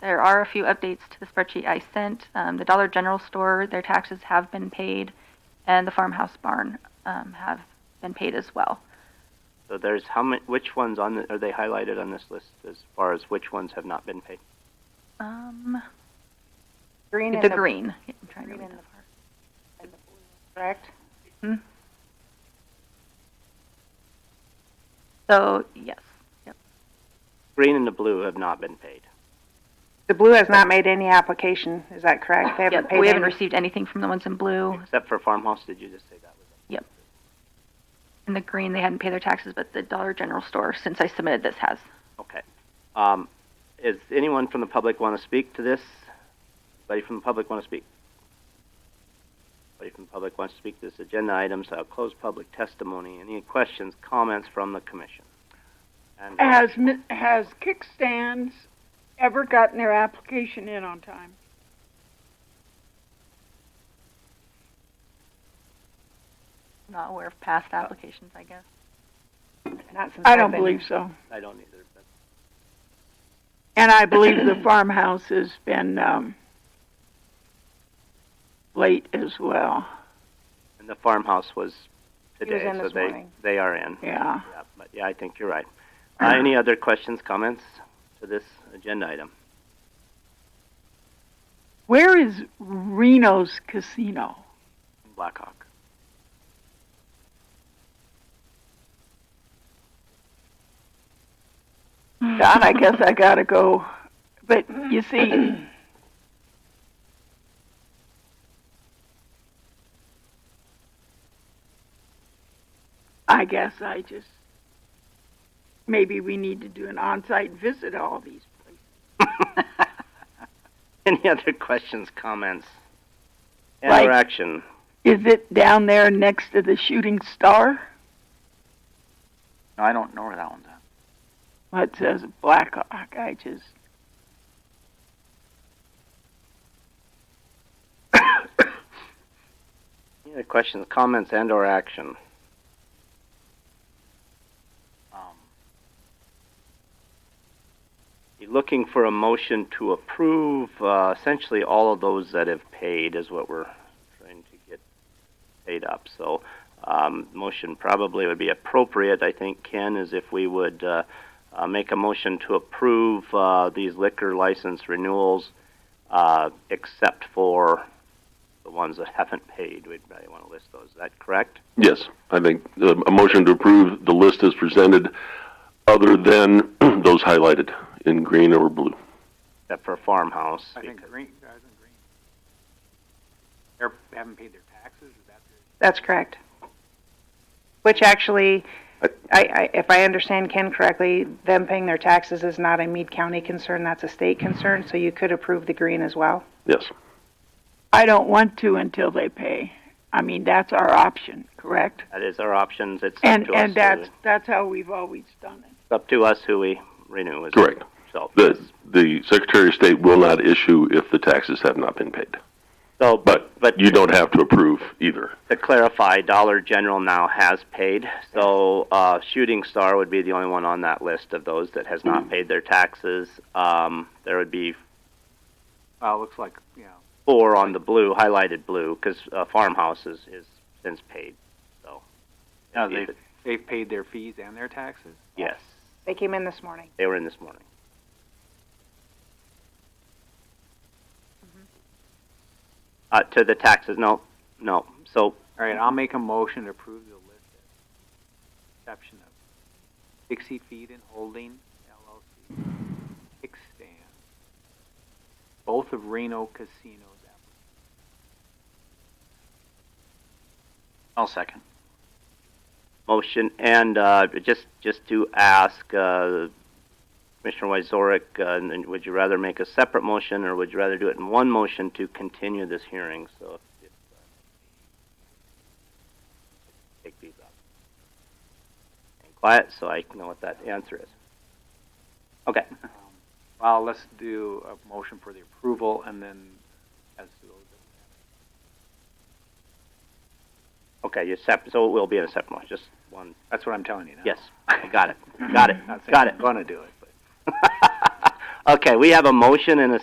There are a few updates to the spreadsheet I sent. Um, the Dollar General store, their taxes have been paid, and the farmhouse barn um, have been paid as well. So there's how many, which ones on the, are they highlighted on this list as far as which ones have not been paid? Um, Green the, and the green. Yeah, I'm trying to green read and that part. correct? So yes, Green and the blue have not been paid. The blue has not made any application, is that correct? They haven't Yep, paid we haven't any- received anything from the ones in Oh. blue. Except for farmhouse, did you just say that was it? In the green, they hadn't paid their taxes, but the Dollar General store, since I submitted this, has. Okay. Um, is anyone from the public want to speak to this? Anybody from the public want to speak? Anybody from the public wants to speak to this agenda item, so I'll close public testimony. Any questions, comments from the commission? And uh, Has, mi- has kickstands ever gotten their application in on time? Not aware of past applications, I guess. Not since I I've don't been believe so. I don't either, but And I believe the farmhouse has been, um, late as well, And the farmhouse was today, was in so this they morning. they are in. yeah. Yeah, but yeah, I think you're right. Uh, any other questions, comments to this agenda item? Where is Reno's Casino? Blackhawk. Mm-hmm. God, I guess I gotta go. But you see, I guess I just maybe we need to do an on-site visit to all these places. any other questions, comments, and Like- or action? Is it down there next to the Shooting Star? No, I don't know where that one's at. Well, it says Blackhawk. I just. Any other questions, comments, and or action? Um, Be Looking for a motion to approve uh, essentially all of those that have paid is what we're trying to get paid up. So, um, motion probably would be appropriate, I think, Ken, is if we would uh, uh, make a motion to approve uh, these liquor license renewals uh, except for the ones that haven't paid. We'd probably want to list those. Is that correct? Yes, I think uh, a motion to approve the list as presented, other than those highlighted in green or blue. Except for farmhouse. I think because- green, I think green. They're, they haven't paid their taxes, is that the? That's correct. Which actually, I, I- I, if I understand Ken correctly, them paying their taxes is not a Mead County concern, that's a state concern, so you could approve the green as well. Yes, I don't want to until they pay. I mean, that's our option, correct? That is our options. It's And up to and us. who that's that's how we've always done it. It's up to us who we renew. Is correct. So, The, the Secretary of State will not issue if the taxes have not been paid. so But but you don't have to approve either. to clarify, Dollar General now has paid. So uh, Shooting Star would be the only one on that list of those that has not paid their taxes. Um, there would be Well, it looks like, you know, four on the blue, highlighted blue, because uh, Farmhouse is, is since paid. So No, they've paid their fees and their taxes? yes, They came in this morning. they were in this morning. Uh, to the taxes, no, no. So All right, I'll make a motion to approve the list at exception of Dixie Feed and Holding LLC, Kickstand, both of Reno Casino's. I'll second. motion, and uh, just just to ask, uh, Commissioner Wyzorek, uh, and then would you rather make a separate motion, or would you rather do it in one motion to continue this hearing? So, if, if, uh, take these up. And quiet, so I know what that answer is. Okay. Well, let's do a motion for the approval and then as to those. Okay, you sep- so it will be in a separate motion, just one. That's what I'm telling you now. Yes, I got it, got it, Not saying got it. I'm gonna do it, but. Okay, we have a motion and a